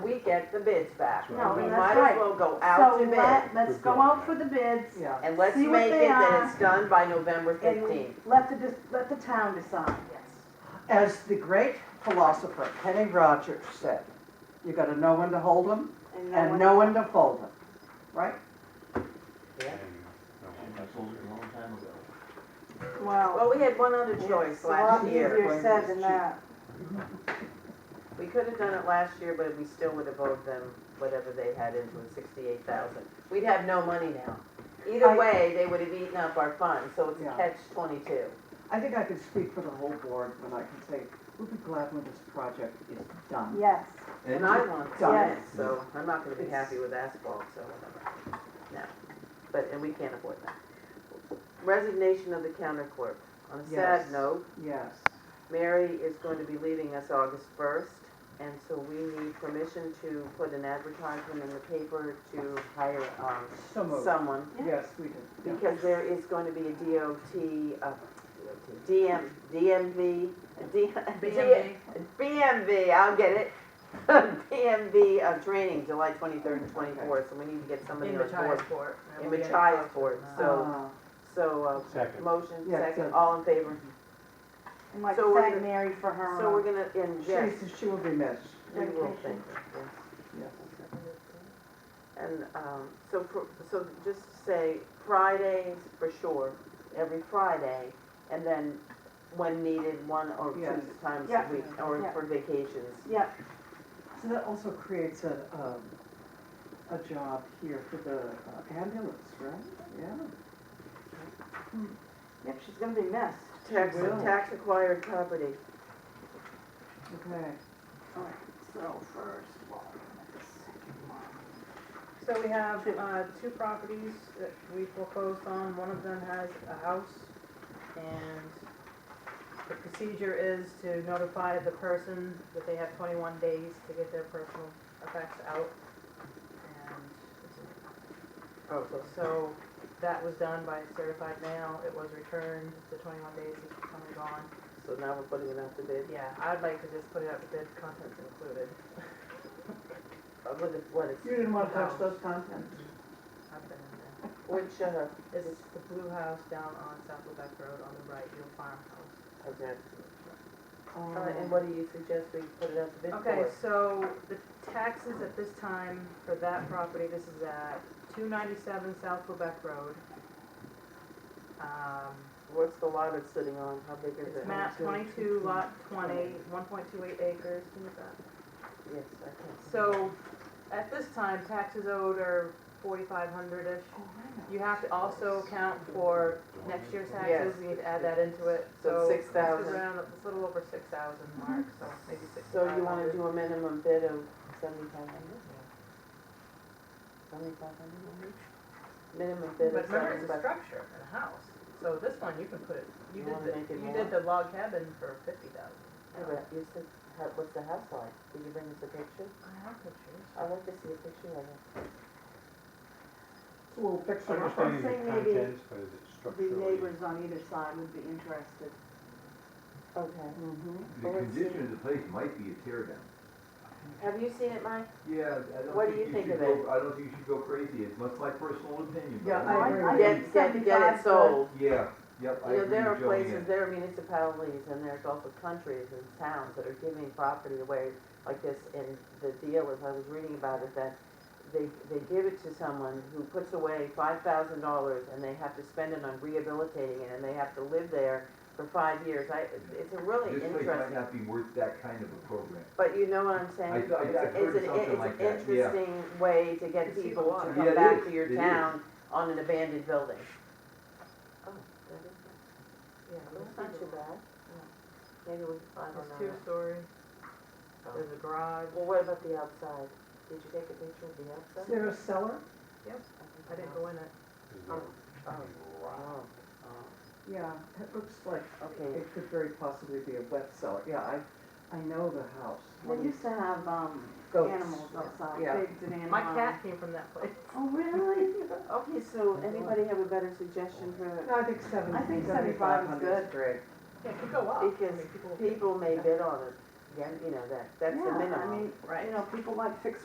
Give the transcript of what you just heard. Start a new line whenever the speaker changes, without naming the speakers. get the bids back.
That's right.
We
No,
might
that's
as
right.
well go out to
So
bid
let, let's go out for the bids
Yeah.
and let's
see what
make
they
it that
are.
it's done by November
and we
fifteenth.
let the, dis- let the town decide.
As the great philosopher Kenny Rogers said, you gotta know when to hold 'em
And
and
then
know when to fold 'em, right?
I sold it a long time ago.
when- well,
Well, we had one other choice
it's a lot
last year.
easier said than that.
We could have done it last year, but we still would have owed them whatever they had into it, sixty-eight thousand. We'd have no money now. Either
I-
way, they would have eaten up our funds, so it's a
Yeah.
catch twenty-two.
I think I can speak for the whole board when I can say, we'll be glad when this project is done.
Yes,
And I want
Done.
cement, so I'm not gonna be happy with asphalt, so whatever. No, but, and we can't afford that. Resignation of the counter clerk. On a sad
Yes.
note,
Yes.
Mary is going to be leaving us August first, and so we need permission to put an advertisement in the paper to hire, um,
So moved.
someone.
Yes, we did. yeah.
Because there is going to be a DOT, uh, DOT, DM, DMV, a D-
BMV.
BMV, I'll get it. BMV uh, training, July twenty-third and twenty-fourth, so we need to get somebody
In
on board.
Machiasport.
In Machiasport, so,
Ah,
so, uh,
Second.
motion,
Yeah,
second,
good.
all in favor.
and like
So we're
thank
gonna-
Mary for her.
So we're gonna, and yes,
She's, she will be missed.
we will thank
vacation.
her, yes.
Yes.
And um, so, for- so just say Fridays for sure, every Friday, and then when needed, one or
Yes.
two times
Yeah.
a week, or
Yeah.
for vacations.
Yeah,
So that also creates a, um, a job here for the uh, ambulance, right? Yeah.
yep, she's gonna be missed.
Tax,
Will.
tax acquired property.
Okay.
All right, so first of all, we're gonna have the second one.
So we have, uh, two properties that we foreclosed on, one of them has a house, and the procedure is to notify the person that they have twenty-one days to get their personal effects out, and it's a
Oh, so,
So that was done by certified mail, it was returned, the twenty-one days is coming gone.
so now we're putting it out to bid,
Yeah, I'd like to just put it up to bid, contents included.
Uh, with the- what is,
You didn't want to touch those contents?
I've been in there.
which, uh,
This is the blue house down on South Quebec Road on the right, your farmhouse.
okay. Uh, And what do you suggest we put it out to bid for?
Okay, so the taxes at this time for that property, this is at two ninety-seven South Quebec Road. Um,
What's the lot it's sitting on, how big is it?
It's map twenty-two, lot 20, 1.28 acres, Can you look that?
Yes, I can.
So, at this time, taxes owed are forty-five hundred-ish.
Oh, I know.
You have to also account for
uh,
next year's taxes, we need to add that into it,
So
so.
six
it's
thousand.
around- It's a little over six thousand mark, so maybe six.
So you wanna do a minimum bid of seventy-five hundred? Seventy-five hundred on each? Minimum
But
bid of
remember, it's a
seventy-five.
structure and a house, so this one, you can put it, you
You
did
wanna make
the,
it
you did
more?
the log cabin for fifty thousand.
Yeah, but you said, how- what's the house like? Did you bring us a picture?
I have pictures.
I'd like to see a picture of it.
It's a little picture.
Understanding
saying
the
maybe
contents, but is it
The
structurally?
neighbors on either side would be interested.
Okay.
Mhm.
The
Well, let's see.
condition of the place might be a tear down.
Have you seen it, Mike?
Yeah, I don't
What do you think
think you should
of it?
go, I don't think you should go crazy, it's much my personal opinion, but.
Yeah, I agree.
I
Get-
Get,
think
get
75
it
good.
sold.
Yeah, yep, I
You know,
agree
there are
with Joanne.
places, there are municipalities, and there's also countries and towns that are giving property away like this, and the deal is, I was reading about it, that they, they give it to someone who puts away five thousand dollars, and they have to spend it on rehabilitating it, and they have to live there for five years, I, it's a really
This place might
interesting,
not be worth that kind of a program.
but you know what I'm
I- I-
saying?
I've heard
It's an,
something
it's
like
an
that, yeah.
interesting way to
You
get
see the
people
water.
to
Yeah,
come
it
back
is.
to your
It is.
town on an abandoned building. Oh, that is nice.
Yeah,
That's not too bad. Maybe we can find one
It's
on that.
two-story,
Oh.
there's a garage,
Well, what about the outside? Did you take a picture of the
Is
outside?
there a cellar?
I didn't go in it.
Is there
Oh.
any rock?
Oh,
Yeah, it looks like
okay.
it could very possibly be a wet cellar. Yeah, I, I know the house.
They used to have, um,
Goats.
animals outside,
Yeah.
pigs and animals.
My
um,
cat came from that place.
Oh, really?
Okay, so anybody have a better suggestion for,
No, I think seventy,
I think
seventy-five
75 is
hundred is
good.
great.
Yeah, it could go up, I mean,
Because
people.
people may bid on it, again, you know, that, that's the
Yeah,
minimum.
I mean,
Right.
you know, people like fixer